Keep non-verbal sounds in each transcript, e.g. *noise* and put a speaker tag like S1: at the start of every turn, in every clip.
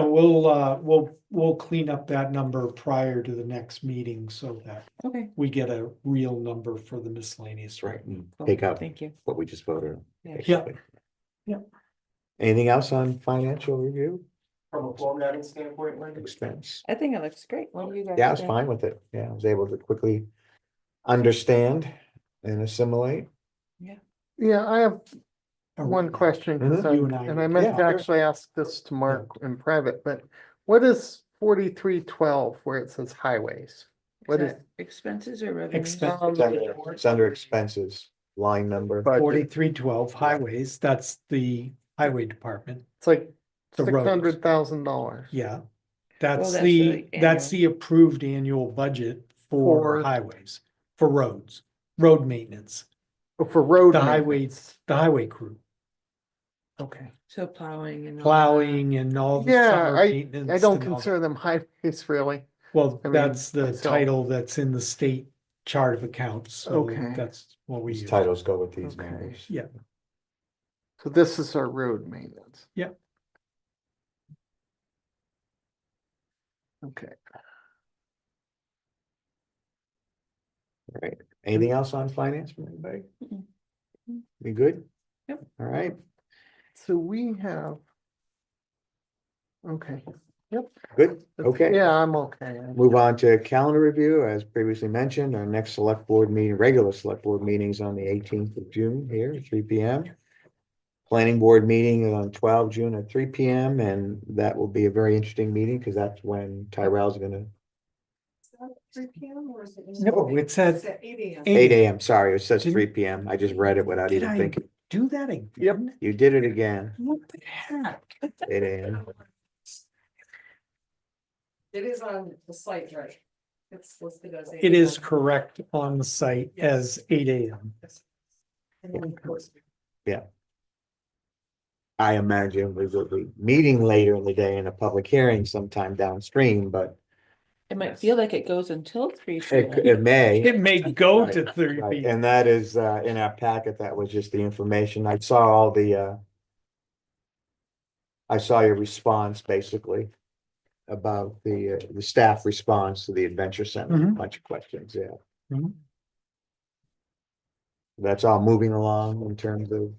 S1: And we'll, uh, we'll, we'll clean up that number prior to the next meeting so that
S2: Okay.
S1: we get a real number for the miscellaneous.
S3: Right, and
S2: cool.
S3: take out
S2: Oh, Thank you.
S3: what we just voted. on,
S2: Yeah.
S1: Yeah.
S3: basically.
S1: Yeah.
S3: Anything else on financial review
S4: From a formatting standpoint, like,
S3: expense?
S2: I think it looks great. What do you guys?
S3: Yeah, I was
S2: think?
S3: fine with it. Yeah, I was able to quickly understand and assimilate.
S5: Yeah, I have
S1: Or-
S5: one question, 'cause
S1: Mhm.
S5: I-
S1: Oh, You and I
S5: and I
S1: did.
S3: Yeah,
S5: meant to
S3: sure.
S5: actually ask this to Mark in private, but what is forty-three twelve where it says highways? What
S2: Is
S5: is
S2: that Expenses or revenues?
S1: Expense
S5: Um,
S3: It's under- it's under expenses, line number.
S5: budget?
S1: forty-three twelve highways, that's the highway department,
S5: It's like
S1: The
S5: six
S1: roads.
S5: hundred thousand dollars.
S1: yeah.
S2: Well,
S1: That's
S2: that's
S1: the,
S2: the
S1: that's
S2: annual.
S1: the approved annual budget for
S5: For-
S1: highways, for roads, road maintenance,
S5: For road.
S1: the
S5: maintenance.
S1: highways, the highway crew,
S5: Okay,
S2: So plowing and. all that.
S1: plowing and all the
S5: Yeah,
S1: summer maintenance.
S5: I don't
S1: and all that.
S5: consider them *laughs* highways really.
S1: Well,
S5: I mean,
S1: that's the
S5: myself.
S1: title that's in the state chart of accounts, so
S5: Okay.
S1: that's what we
S3: These
S1: use.
S3: titles go with these
S5: Okay.
S3: numbers.
S1: Yeah.
S5: So this is our road maintenance.
S1: Yeah.
S5: Okay,
S3: Anything else on finance from anybody?
S2: Mm-mm.
S3: We good?
S2: Yep.
S3: All right.
S5: so we have. Okay. Yep.
S3: Good,
S5: That's-
S3: okay.
S5: Yeah, I'm okay. I-
S3: Move on to calendar review, as previously mentioned, our next select board meeting, regular select board meetings on the eighteenth of June here, at three P M. Planning board meeting is on twelve June at three P M, and that will be a very interesting meeting, because that's when Tyrell's gonna,
S6: Three P M or is it?
S1: No, it says
S6: It's at eight A M.
S3: eight A M, sorry, it says
S1: Didn't-
S3: three P M, I just read it without
S1: Did
S3: even
S1: I-
S3: thinking.
S1: do that again.
S5: Yep.
S3: You did it again,
S1: What the heck?
S3: eight A M,
S6: It is on the site, right? It's listed as. 8
S1: It is
S6: a.m.
S1: correct on the site as eight AM.
S6: And then, of course,
S3: I imagine we will be meeting later in the day in a public hearing sometime downstream, but
S2: It might feel like it goes until three.
S3: it,
S2: today.
S3: it may.
S1: It may go to thirty
S3: Right,
S1: PM.
S3: and that is, uh, in our packet, that was just the information. I saw all the, uh. I saw your response basically about the, uh, the staff response to the Adventure Center, a
S1: Mhm.
S3: bunch of questions, yeah.
S1: Mhm.
S3: That's all moving along in terms of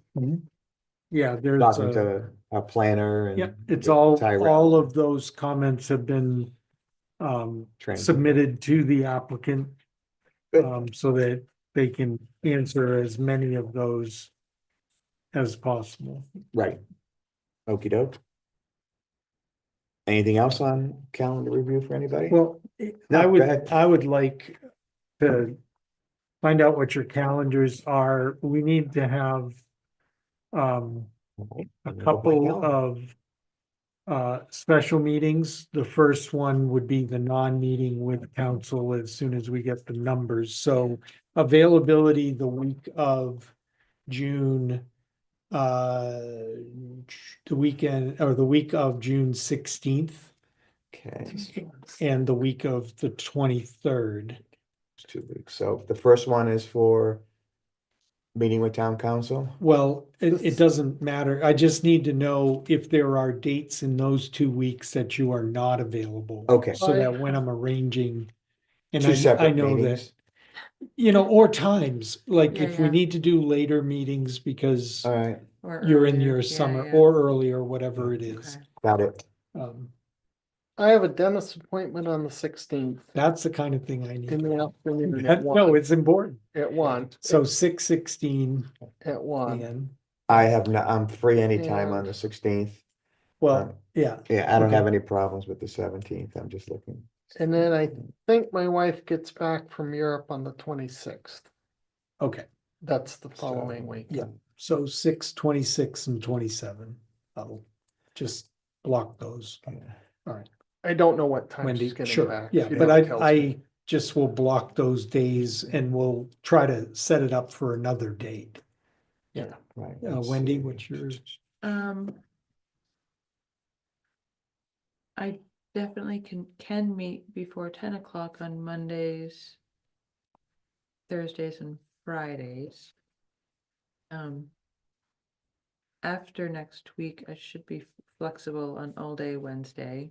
S1: Yeah, there's
S3: talking
S1: a,
S3: to our planner and.
S1: yeah, uh, it's all,
S3: Tyrell.
S1: all of those comments have been um,
S3: Trans-
S1: submitted to the applicant.
S3: Good.
S1: Um, so that they can answer as many of those as possible.
S3: Right. Okey doke. Anything else on calendar review for anybody?
S1: Well, I-
S3: No,
S1: I
S3: go
S1: would,
S3: ahead.
S1: I would like to find out what your calendars are. We need to have um,
S3: Okay,
S1: a
S3: let me open my
S1: couple
S3: calendar.
S1: of uh, special meetings. The first one would be the non-meeting with council as soon as we get the numbers. So availability the week of June, uh, the weekend, or the week of June sixteenth
S3: Okay.
S1: and the week of the twenty-third.
S3: It's two weeks. So the first one is for meeting with town council.
S1: Well, it,
S5: This-
S1: it doesn't matter. I just need to know if there are dates in those two weeks that you are not available.
S3: Okay.
S1: So that when I'm arranging, Oh, and
S3: Two
S1: I, I
S3: separate
S1: know that,
S3: meetings.
S1: you know, or times, like
S2: Yeah,
S1: if we
S2: yeah.
S1: need to do later meetings because
S3: All right,
S2: Or
S1: you're in
S2: earlier.
S1: your
S2: Yeah,
S1: summer
S2: yeah.
S1: or earlier, whatever it is.
S2: Okay.
S3: got it.
S1: Um,
S5: I have a dentist appointment on the sixteenth
S1: that's the kind of thing I
S5: in
S1: need.
S5: the
S1: *laughs*
S5: afternoon at
S1: No,
S5: one,
S1: it's important.
S5: at one,
S1: So six sixteen
S5: at one.
S1: and,
S3: I have not, I'm free anytime on
S5: Yeah.
S3: the sixteenth. Um,
S1: well, yeah,
S3: Yeah, I don't have
S1: Okay.
S3: any problems with the seventeenth. I'm just looking.
S5: And then I think my wife gets back from Europe on the twenty-sixth.
S1: okay.
S5: That's the
S3: So,
S5: following week.
S1: Yeah. So six, twenty-six and twenty-seven. I'll just block those.
S3: yeah.
S5: I don't know what time
S1: Wendy,
S5: she's getting
S1: sure,
S5: back.
S1: yeah,
S5: She
S1: but
S5: never
S1: I,
S5: tells me.
S1: I just will block those days and we'll try to set it up for another date.
S3: Right.
S1: Uh,
S3: let's
S1: Wendy,
S3: see.
S1: what's yours?
S2: Um. I definitely can, can meet before ten o'clock on Mondays. Thursdays and Fridays. Um. after next week, I should be flexible on all day Wednesday.